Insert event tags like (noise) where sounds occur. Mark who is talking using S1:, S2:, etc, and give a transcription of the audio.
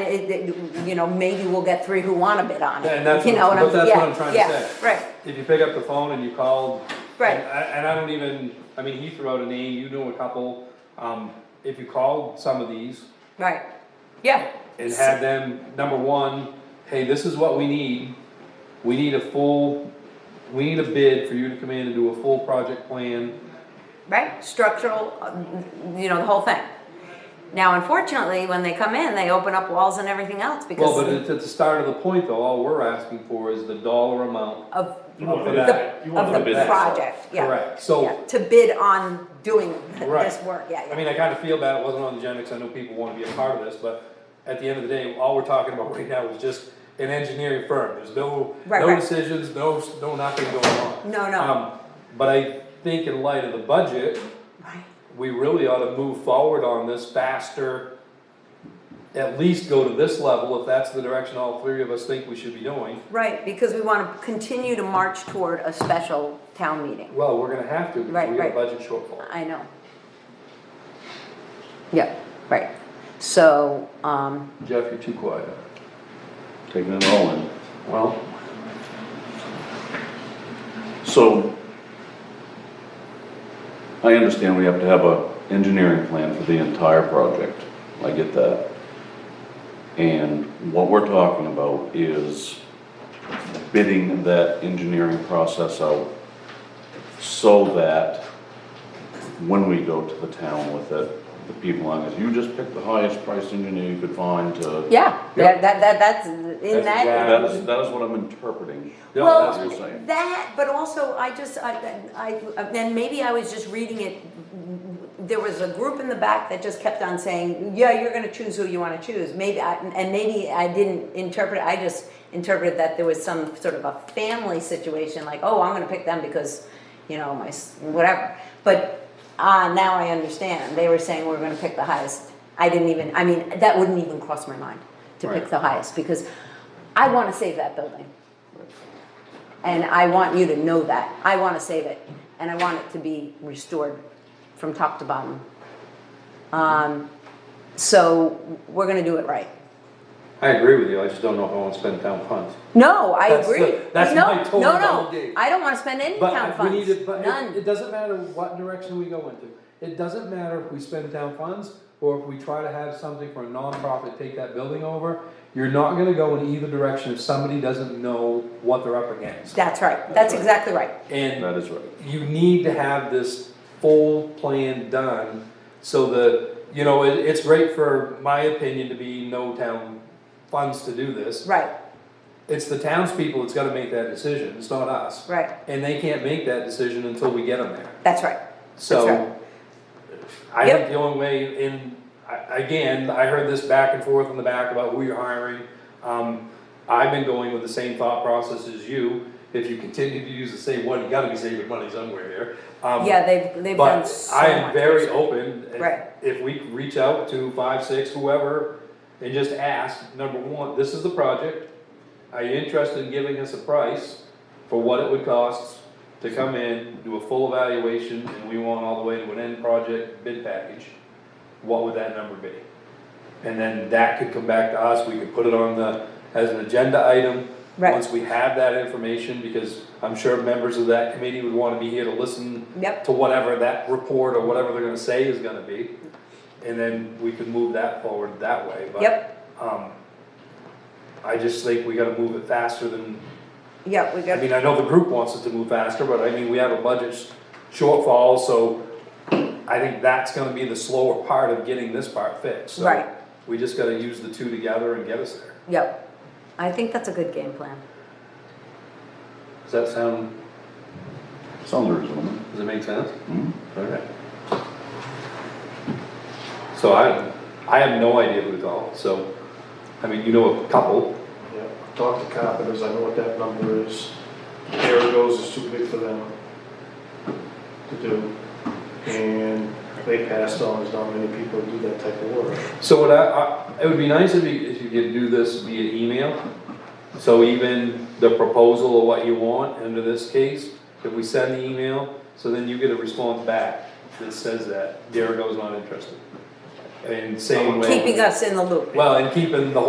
S1: it- it- you know, maybe we'll get three who wanna bid on
S2: And
S1: it,
S2: that's,
S1: you know what
S2: what- but
S1: I'm,
S2: that's what I'm
S1: yeah,
S2: trying to
S1: yeah,
S2: say.
S1: right,
S2: If you pick up the phone and you called.
S1: Right.
S2: And I, and I don't even, I mean, he threw out a name, you knew a couple, um, if you called some of these
S1: right, yeah.
S2: and had them, number one, hey, this is what we need. We need a full, we need a bid for you to come in and do a full project plan.
S1: Right, structural, um, you know, the whole thing. Now unfortunately, when they come in, they open up walls and everything else
S2: Well, but
S1: because
S2: it's at the start of the point though, all we're asking for is the dollar amount.
S1: of
S3: You want
S2: For
S3: it
S2: that.
S3: back.
S1: the,
S3: You want
S1: of
S3: it
S1: the
S3: back.
S1: project, yeah.
S2: Correct, so-
S1: yeah, To bid on doing this
S2: Right.
S1: work, yeah,
S2: I
S1: yeah,
S2: mean, I kinda feel bad it wasn't on the agenda, cause I know people wanna be a part of this, but at the end of the day, all we're talking about (laughs) right now is just an engineering firm, there's no,
S1: Right,
S2: no
S1: right.
S2: decisions, no, no nothing going on.
S1: No, no.
S2: Um, But I think in light of the budget,
S1: right,
S2: we really ought to move forward on this faster. At least go to this level, if that's the direction all three of us think we should be doing.
S1: right, because we wanna continue to march toward a special town meeting,
S2: Well, we're gonna have to, because
S1: Right,
S2: we got
S1: right.
S2: a budget shortfall.
S1: I know. Yeah, right, so, um,
S2: Jeff, you're too quiet.
S3: Taking it all in.
S2: Well.
S3: So, I understand we have to have a engineering plan for the entire project, I get that. And what we're talking about is bidding that engineering process out so that when we go to the town with it, the people on it, you just pick the highest priced engineer you could find to.
S1: yeah, that, that, that- that's, in
S2: That's
S1: that.
S2: exactly
S3: That is, that is what I'm interpreting.
S2: Yeah,
S1: Well,
S2: that's
S3: what you're saying.
S1: that, but also I just, I, I, I- then maybe I was just reading it. There was a group in the back that just kept on saying, yeah, you're gonna choose who you wanna choose. Maybe, I- and maybe I didn't interpret, I just interpreted that there was some sort of a family situation, like, oh, I'm gonna pick them because, you know, my, s- whatever. But, uh, now I understand. They were saying we're gonna pick the highest. I didn't even, I mean, that wouldn't even cross my mind to pick
S2: Right.
S1: the highest because I wanna save that building. And I want you to know that. I want to save it. And I want it to be restored from top to bottom. Um, so we're going to do it right.
S2: I agree with you, I just don't know if I wanna spend town funds.
S1: No, I
S2: That's
S1: agree.
S2: the- that's
S1: no,
S2: my total
S1: no, no.
S2: validate.
S1: I don't want to spend any town
S2: But we
S1: funds.
S2: need to, but it,
S1: None.
S2: it doesn't matter what direction we go into, it doesn't matter if we spend town funds, or if we try to have something for a nonprofit take that building over, you're not gonna go in either direction if somebody doesn't know what they're up against.
S1: That's right. That's
S3: That's right.
S1: exactly right.
S2: And
S3: That is right.
S2: you need to have this full plan done so that, you know, it, it's great for my opinion to be no town funds to do this.
S1: Right.
S2: It's the townspeople that's gotta make that decision, it's not us.
S1: Right.
S2: And they can't make that decision until we get them there.
S1: That's right. That's
S2: So,
S1: right.
S2: I
S1: Yep.
S2: think the only way in, I- again, I heard this back and forth in the back about who you're hiring. Um, I've been going with the same thought process as you. If you continue to use the same one, you gotta be saving money somewhere here. Um,
S1: Yeah, they've they've done
S2: But
S1: so
S2: I am
S1: much.
S2: very open. if-
S1: Right.
S2: If we reach out to five, six, whoever, and just ask, number one, this is the project. Are you interested in giving us a price for what it would cost to come in, do a full evaluation, and we want all the way to an end project bid package? What would that number be? And then that could come back to us, we could put it on the, as an agenda item.
S1: Right.
S2: Once we have that information, because I'm sure members of that committee would wanna be here to listen
S1: Yep.
S2: to whatever that report or whatever they're gonna say is gonna be. And then we could move that forward that way, but.
S1: Yep.
S2: Um, I just think we gotta move it faster than,
S1: Yeah, we
S2: I
S1: got.
S2: mean, I know the group wants us to move faster, but I mean, we have a budget sh- shortfall, so. I think that's gonna be the slower part of getting this part fixed, so.
S1: Right.
S2: We just gotta use the two together and get us there.
S1: Yep. I think that's a good game plan.
S2: Does that sound,
S3: Sounds reasonable.
S2: does it make sense?
S3: Mhm.
S2: Okay. So I, I have no idea who to call, so, I mean, you know a couple,
S4: Yeah, talk to carpenters, I know what that number is. Air goes is too big for them to do. And they passed on, there's not many people who do that type of work.
S2: so what I, I, it would be nice if you, if you could do this via email. So even the proposal of what you want, under this case, if we send the email, so then you get a response back that says that Derek goes not interested. And same way.
S1: Keeping us in the loop.
S2: Well, and keeping the whole